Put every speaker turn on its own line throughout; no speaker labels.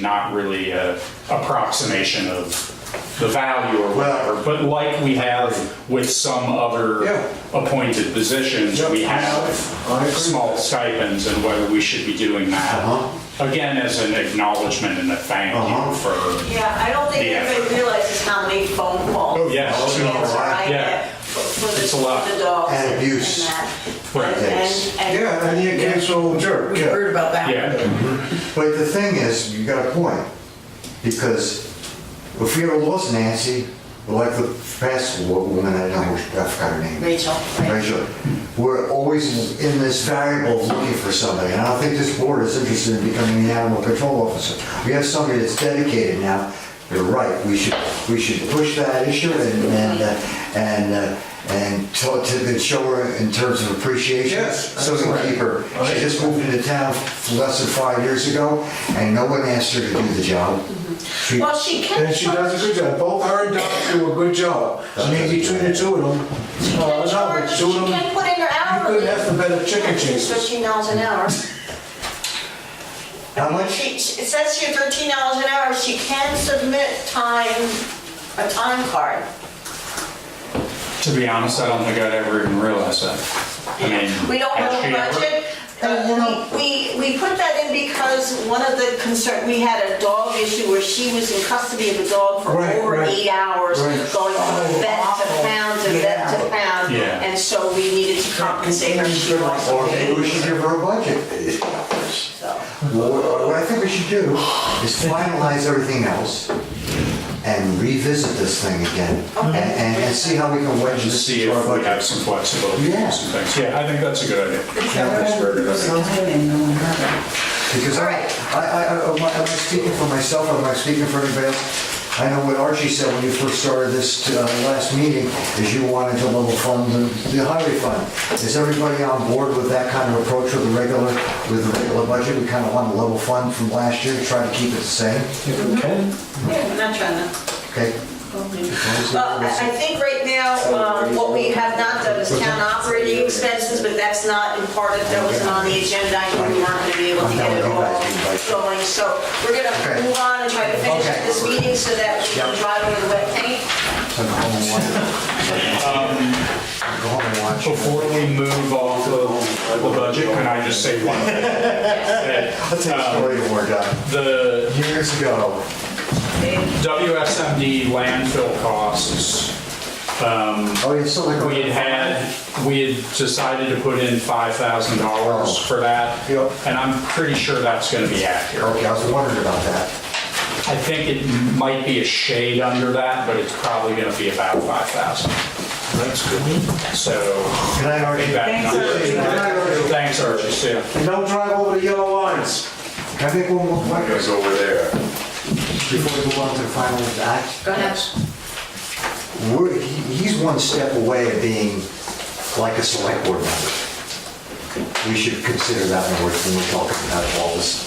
not really a approximation of the value or
Well-
whatever, but like we have with some other
Yeah.
appointed positions,
Yeah.
we have
I agree.
small stipends and whether we should be doing
Uh-huh.
that. Again, as an acknowledgement and a thank
Uh-huh.
you for,
Yeah, I don't think
The
anybody realizes how many phone calls.
Oh,
yeah.
and
Oh,
answer I
yeah.
get for- for the-
It's a lot.
The dogs.
And abuse.
that.
Right.
And- and- and-
Yeah, and the occasional jerk,
We
yeah.
heard about that.
yeah,
But the thing is, you got a point, because if we ever lost Nancy, like the past wo- woman, I don't know, I forgot her name.
Rachel, right.
Rachel, we're always in this variable of looking for somebody, and I don't think this board is interested in becoming an animal control officer. We have somebody that's dedicated now, you're right, we should, we should push that issue and, and, uh, and, uh, and talk to, and show her in terms of appreciation.
Yes,
So we can keep her, she just moved into town less than five years ago, and no one asked her to do the job. She-
Well, she can.
And she does a good job. Both her and Doc do a good job. I mean, between the two of them,
She can
uh, no,
charge,
the
she
two of
can
them,
put in her
you
hourly.
couldn't ask for better chicken chasers.
Thirteen dollars an hour.
How much?
She, she- it says here thirteen dollars an hour, she can submit time, a time card.
to be honest, I don't think I'd ever even realize that. I mean,
We don't
has
have a
she ever-
budget.
And, you know-
Uh, We, we put that in because one of the concern, we had a dog issue where she was in custody of a dog for
Right,
over
right,
eight hours,
right.
going from
Oh,
vet to
awful.
pound to vet to
Yeah.
pound.
Yeah.
And so we needed to compensate her, she lost
Or
weight,
maybe we should give her a budget.
so.
Well, What what I think we should do is finalize everything else and revisit this thing again and, and- and see how we can wedge
Just
this
see
into our
if we
budget.
have some flexibility
Yeah.
and some things. Yeah, I think that's a good idea.
Because I, I, I, I- am I- am I speaking for myself or am I speaking for anybody else? I know what Archie said when you first started this uh, last meeting, is you wanted to level fund the the highway fund. Is everybody on board with that kind of approach with the regular, with the regular budget? We kind of want to level fund from last year, try to keep it the same,
If we can.
Yeah, I'm not trying to.
okay?
Well, Uh, I I think right now, um, what we have not done is town operating expenses, but that's not in part of, that wasn't on the agenda. I knew we weren't going to be able to get it all going, so we're going
Okay.
to move on and try to finish
Okay.
this meeting so that we can
Yep.
drive over the wet paint.
Go home and watch. Go home and watch.
Um, Before we move off of the budget, can I just say one thing?
I'll tell you a
um,
story when we're done.
The
Years ago,
WSMD landfill costs,
oh, you're still like.
we had had, we had decided to put in $5,000 for that.
Yep.
And I'm pretty sure that's going to be accurate.
Okay, I was wondering about that.
I think it might be a shade under that, but it's probably going to be about 5,000. That's good. So,
Can
I
I
think
argue?
that number.
Archie.
Thanks, Archie, see ya.
And don't drive over the yellow lines.
Can I make one more point
It's over there.
before we go on to the final act?
Go ahead.
We're, he- he's one step away of being like a select board member. We should consider that when we're, when we're talking about all this.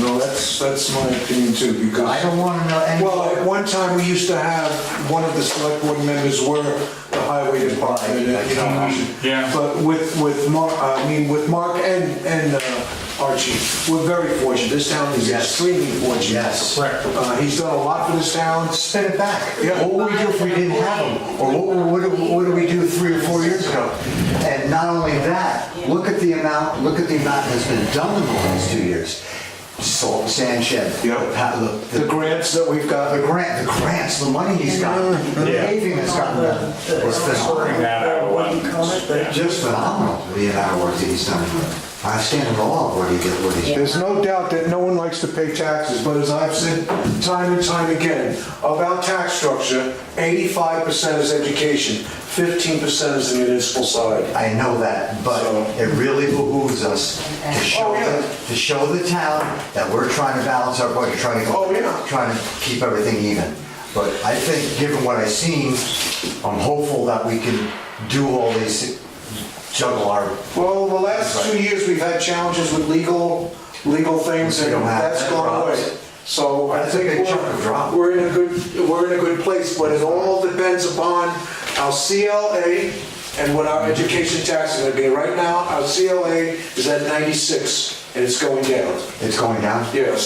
No, that's, that's my opinion too, because.
I don't want to know any.
Well, at one time, we used to have, one of the select board members were the highway department, and, you know, we should-
Yeah.
But with, with Mark, I mean, with Mark and, and uh, Archie, we're very fortunate, this town is
Yes.
extremely fortunate.
Yes.
Correct.
Uh, he's done a lot for this town,
Spin it back.
Yeah.
What would we do if we didn't have them? Or what, what, do- what do we do three or four years ago? And not only that, look at the amount, look at the amount that's been done in the last two years. Salt, and sand shed.
Yeah.
pa- The,
the
the
grants that we've got,
the grant, the grants, the money he's gotten, the
Yeah.
paving that's gotten done. It's
Bring
phenomenal.
that out of one. Yeah.
Just phenomenal, the amount of work that he's done. I stand in awe of what he did, what he's done.
There's no doubt that no one likes to pay taxes, but as I've said time and time again, of our tax structure, 85% is education, 15% is the municipal side.
I know that, but it really behooves us to show,
Oh, yeah.
the- to show the town that we're trying to balance our budget, trying to,
Oh, yeah.
trying to keep everything even. But I think, given what I've seen, I'm hopeful that we can do all these, juggle our,
Well, the last two years, we've had challenges with legal, legal things, and
We don't have
that's
that
gone
problem.
away. So I
That's a big
think
chunk of drop.
we're, we're in a good, we're in a good place, but it all depends upon our CLA and what our education tax is gonna be. Right now, our CLA is at 96, and it's going down.
it's going down.
Yes.